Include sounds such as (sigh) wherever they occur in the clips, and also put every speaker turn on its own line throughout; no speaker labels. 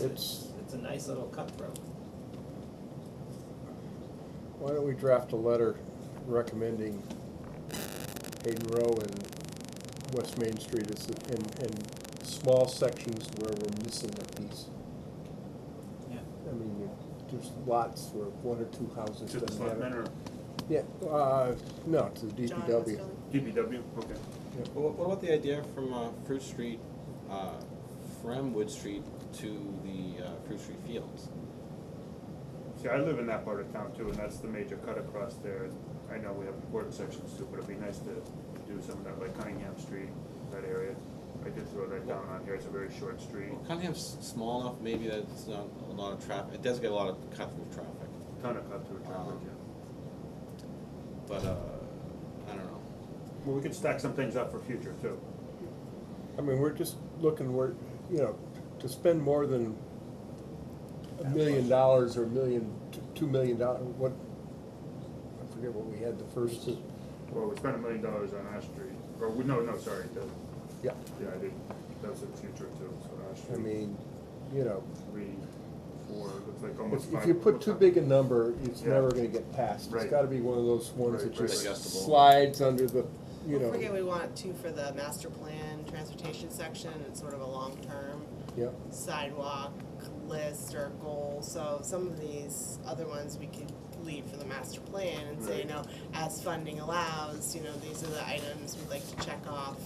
it's, it's a nice little cutthroat.
Why don't we draft a letter recommending Hayden Row and West Main Street as, the- in, in small sections where we're missing a piece?
Yeah.
I mean, there's lots where one or two houses
To the
doesn't
selectmen
matter.
or
Yeah, uh, no, to the
John
DPW.
Westfield?
DPW, okay.
Well, What, what about the idea from uh, Fruit Street, uh, from Wood Street to the uh, Fruit Street Fields?
See, I live in that part of town too, and that's the major cut across there. I know we have important sections too, but it'd be nice to do some of that, like Cunningham Street, that area. I did throw that down on here, it's a very short street.
Well, Cunningham's small enough, maybe that it's not a lot of traffic, it does get a lot of cut-through traffic,
Ton of cut through traffic, yeah.
but, uh, I don't know.
Well, we could stack some things up for future too.
I mean, we're just looking, we're, you know, to spend more than a million dollars or a million, t- two million dollars, what, I forget what we had the first,
Well, we spent a million dollars on Ash Street, or, we- no, no, sorry, the,
yeah,
yeah, I did, that's in future too, so Ash Street.
I mean, you know,
Three, four, looks like almost
if,
five.
if you put too big a number, it's
Yeah.
never gonna get passed. It's
Right.
gotta be one of those ones that
Right,
just
right. Adjustable.
slides under the, you
Don't
know,
forget, we want two for the master plan transportation section, it's sort of a long-term
yeah,
sidewalk list or goal, so some of these other ones we could leave for the master plan and say,
Right.
you know, as funding allows, you know, these are the items we'd like to check off,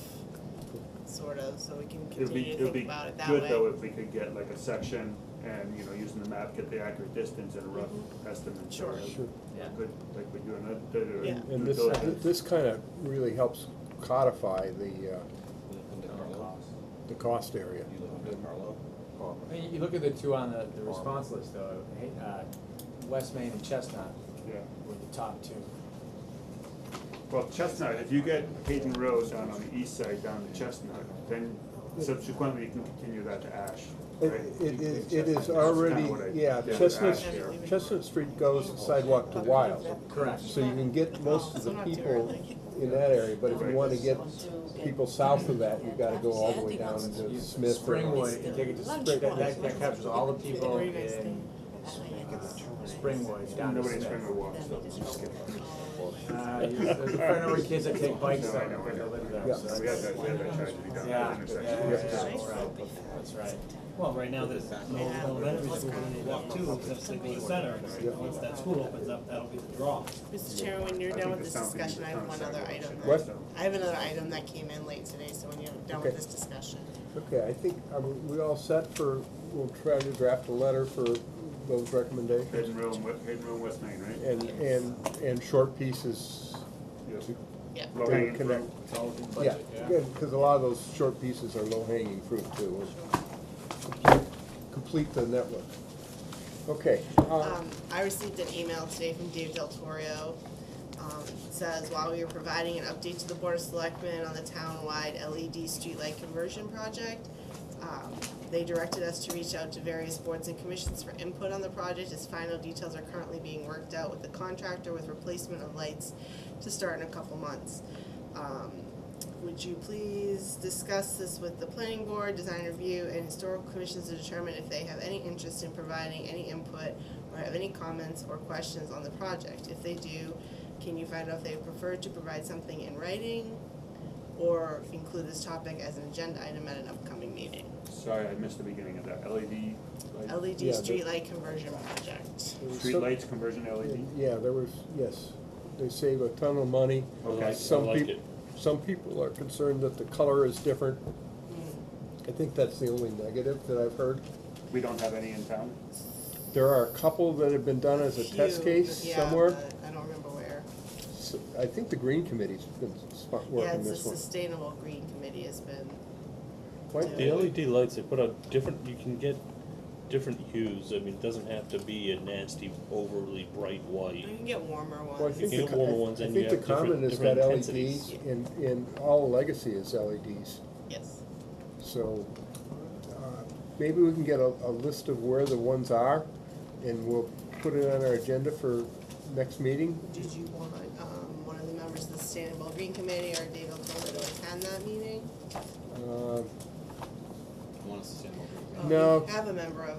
sort of, so we can
It'd be,
continue to
it'd
think
be
about it that way.
good though if we could get like a section and, you know, using the map, get the accurate distance and a rough estimate.
Sure.
sure.
Yeah.
Good, like we do in that- that, uh,
Yeah.
And this, this kinda really helps codify the, uh,
You live in Carlo?
the cost area.
You live in Carlo?
I mean, you look at the two on the, the response list though, hey, uh, West Main and Chestnut
Yeah,
were the top two.
well, Chestnut, if you get Hayden Row down on the east side, down to Chestnut, then subsequently you can continue that to Ash,
It,
right?
it is, it
That's
is
kinda
already,
what I
yeah,
did with
Chestnut,
Ash here.
Chestnut Street goes sidewalk to Wild.
Correct.
So you can get most of the people in that area, but if you wanna get people south of that, you've gotta go all the way down
You-
to Smith. or-
Springwood, you take it to Spring, that, that, that captures all the people
Very nice
in
thing.
Springwood, down to
Nobody's
Smith.
trying to walk, so I'm just kidding.
Uh, you- (laughs) there's a friend of our kids that take bikes
No, I
down,
know, I
there, they
know.
live there,
Yeah.
so
We had that, we had that tragedy down
Yeah,
at the
yeah,
intersection.
yeah, yeah,
Yeah.
that's right. that's right.
Well, right now, there's no, no elementary school, when they walk two, except they go to center,
Yeah.
and once that school opens up, that'll be the draw.
Mr. Chairman, when
I
you're done
think
with this
the sound thing
discussion,
is
I have
on
one
sidewalk
other
should
item.
be
What?
done.
I have another item that came in late today, so when you're done with
Okay.
this discussion.
Okay, I think, are we all set for, we'll try to draft a letter for those recommendations?
Hayden Row, and West- Hayden Row, and West Main, right?
And, and, and short pieces,
Yes.
Yeah.
Low hanging
Connect.
fruit.
It's all within
yeah,
budget, yeah.
good, cause a lot of those short pieces are low hanging fruit too. Complete the network. Okay, uh,
Um, I received an email today from Dave Del Torio. Um, it says, while we were providing an update to the Board of Selectmen on the town-wide LED streetlight conversion project, um, they directed us to reach out to various boards and commissions for input on the project, as final details are currently being worked out with the contractor with replacement of lights to start in a couple months. Um, would you please discuss this with the planning board, design review, and historical commissions to determine if they have any interest in providing any input or have any comments or questions on the project? If they do, can you find out if they prefer to provide something in writing or include this topic as an agenda item at an upcoming meeting?
Sorry, I missed the beginning of that. E LED, like,
LED
Yeah, the-
streetlight conversion project.
there was
street
some-
lights, conversion E LED?
Yeah, there was, yes, they save a ton of money.
Okay. I like- I
Some people, some people are concerned that the color is different. I think that's the only negative that I've heard.
We don't have any in town?
There are a couple that have been done as a test
Few,
case
yeah,
somewhere.
but I don't remember where.
S- I think the Green Committee's been spot-
Yeah,
working
it's the
this one.
Sustainable Green Committee has been,
Quite
The LED lights, they put out different, you can get different hues, I mean, it doesn't have to be a nasty overly bright
you
white.
can get warmer ones.
Well, I think
You
the,
get warmer
co-
ones
I
and
think
you
the
have different-
common is that
different
LEDs,
intensities.
in, in all legacy is LEDs.
Yes.
So, uh, maybe we can get a, a list of where the ones are, and we'll put it on our agenda for next meeting.
Did you want, um, one of the members of the Sustainable Green Committee or David Toler to attend that meeting?
Uh,
I want us to stand over here.
Oh, you
No.
Have a member of